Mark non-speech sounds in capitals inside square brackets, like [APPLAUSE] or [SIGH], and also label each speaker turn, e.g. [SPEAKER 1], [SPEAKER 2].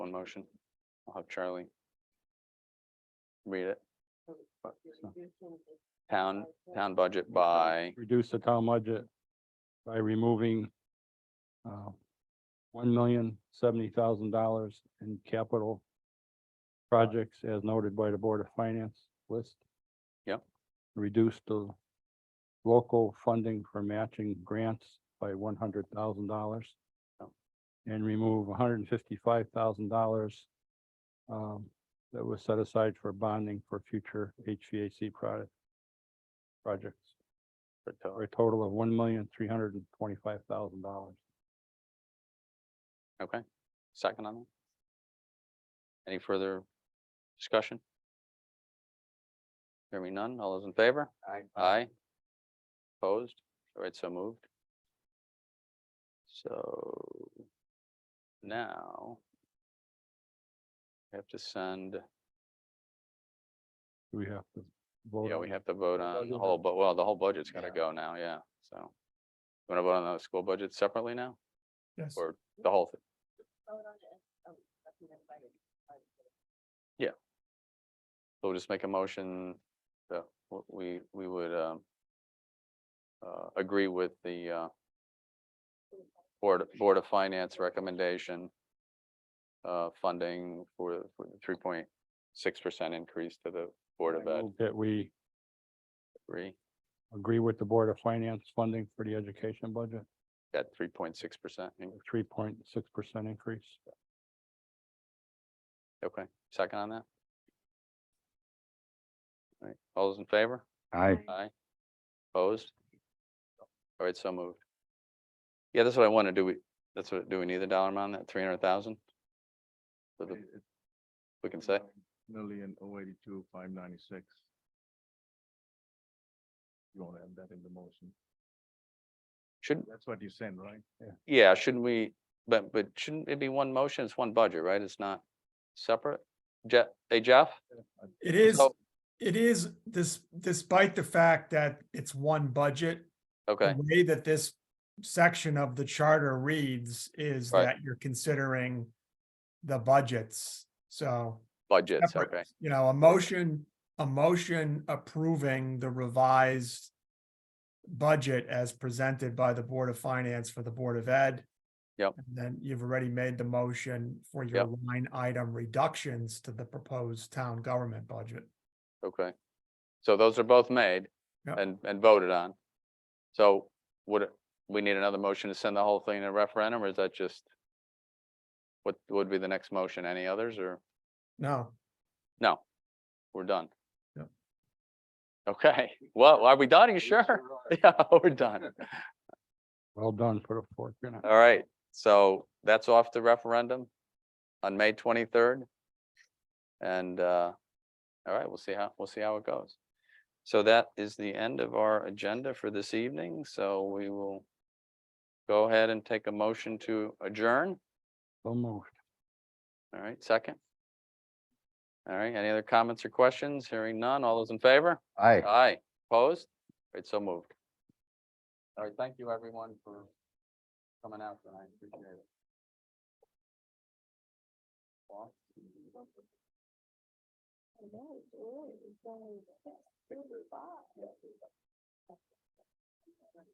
[SPEAKER 1] one motion. I'll have Charlie. Read it. But- so, Town, town budget by,
[SPEAKER 2] reduce the town budget by removing uh, one million seventy thousand dollars in capital projects as noted by the Board of Finance list.
[SPEAKER 1] Yep.
[SPEAKER 2] Reduce the local funding for matching grants by one hundred thousand dollars.
[SPEAKER 1] Yep.
[SPEAKER 2] And remove hundred and fifty-five thousand dollars um, that was set aside for bonding for future HVAC product projects
[SPEAKER 1] for to-
[SPEAKER 2] for a total of one million, three hundred and twenty-five thousand dollars.
[SPEAKER 1] okay, second on that. Any further discussion? Hearing none, all those in favor?
[SPEAKER 3] Aye.
[SPEAKER 1] Aye. Opposed? All right, so moved. So now we have to send,
[SPEAKER 2] We have to vote.
[SPEAKER 1] yeah,
[SPEAKER 2] on
[SPEAKER 1] we
[SPEAKER 2] it.
[SPEAKER 1] have to vote on the
[SPEAKER 3] Budget.
[SPEAKER 1] whole, but well, the whole budget's gotta
[SPEAKER 3] Yeah.
[SPEAKER 1] go now, yeah, so. You wanna vote on the school budget separately now?
[SPEAKER 4] Yes.
[SPEAKER 1] Or the whole thing? So we'll just make a motion that w- we, we would, um, uh, agree with the, uh, Board, Board of Finance recommendation, uh, funding for, for the three point six percent increase to the Board of
[SPEAKER 2] I
[SPEAKER 1] Ed.
[SPEAKER 2] move That we
[SPEAKER 1] Three,
[SPEAKER 2] agree with the Board of Finance funding for the education budget,
[SPEAKER 1] that three point six percent.
[SPEAKER 2] three point six percent increase.
[SPEAKER 1] Okay, second on that? All right, all those in favor?
[SPEAKER 2] Aye.
[SPEAKER 1] Aye. Opposed? All right, so moved. Yeah, that's what I want to do. We, that's what, do we need the dollar amount, on that three hundred thousand? For the, we can say,
[SPEAKER 4] Million oh eighty-two, five ninety-six. You want to add that in the motion?
[SPEAKER 1] shouldn't,
[SPEAKER 4] That's what you said, right?
[SPEAKER 1] yeah, shouldn't we, but, but shouldn't it be one motion? It's one budget, right? It's not separate? Jeff, hey Jeff?
[SPEAKER 5] It is,
[SPEAKER 1] So-
[SPEAKER 5] it is this, despite the fact that it's one budget.
[SPEAKER 1] Okay,
[SPEAKER 5] The way that this section of the charter reads is
[SPEAKER 1] Right.
[SPEAKER 5] that you're considering the budgets. So,
[SPEAKER 1] budgets,
[SPEAKER 5] separate,
[SPEAKER 1] okay,
[SPEAKER 5] you know, a motion, a motion approving the revised budget as presented by the Board of Finance for the Board of Ed.
[SPEAKER 1] Yep.
[SPEAKER 5] And Then you've already made the motion for your line item reductions to the proposed town government budget.
[SPEAKER 1] okay. So those are both made
[SPEAKER 5] Yep.
[SPEAKER 1] and, and voted on. So would, it- we need another motion to send the whole thing to referendum or is that just? What would be the next motion? Any others or?
[SPEAKER 5] No.
[SPEAKER 1] No, we're done.
[SPEAKER 5] Yep.
[SPEAKER 1] Okay, well, are we done? Are you sure? [LAUGHS] Yeah, we're done.
[SPEAKER 2] Well done for the fourth. you know.
[SPEAKER 1] All right, so that's off the referendum on May twenty-third. And, uh, all right, we'll see how, we'll see how it goes. So that is the end of our agenda for this evening, so we will go ahead and take a motion to adjourn.
[SPEAKER 2] So moved.
[SPEAKER 1] All right, second. All right, any other comments or questions? Hearing none. All those in favor?
[SPEAKER 3] Aye.
[SPEAKER 1] Aye, opposed? It's so moved. All right, thank you everyone for coming out tonight, appreciate it. Paul?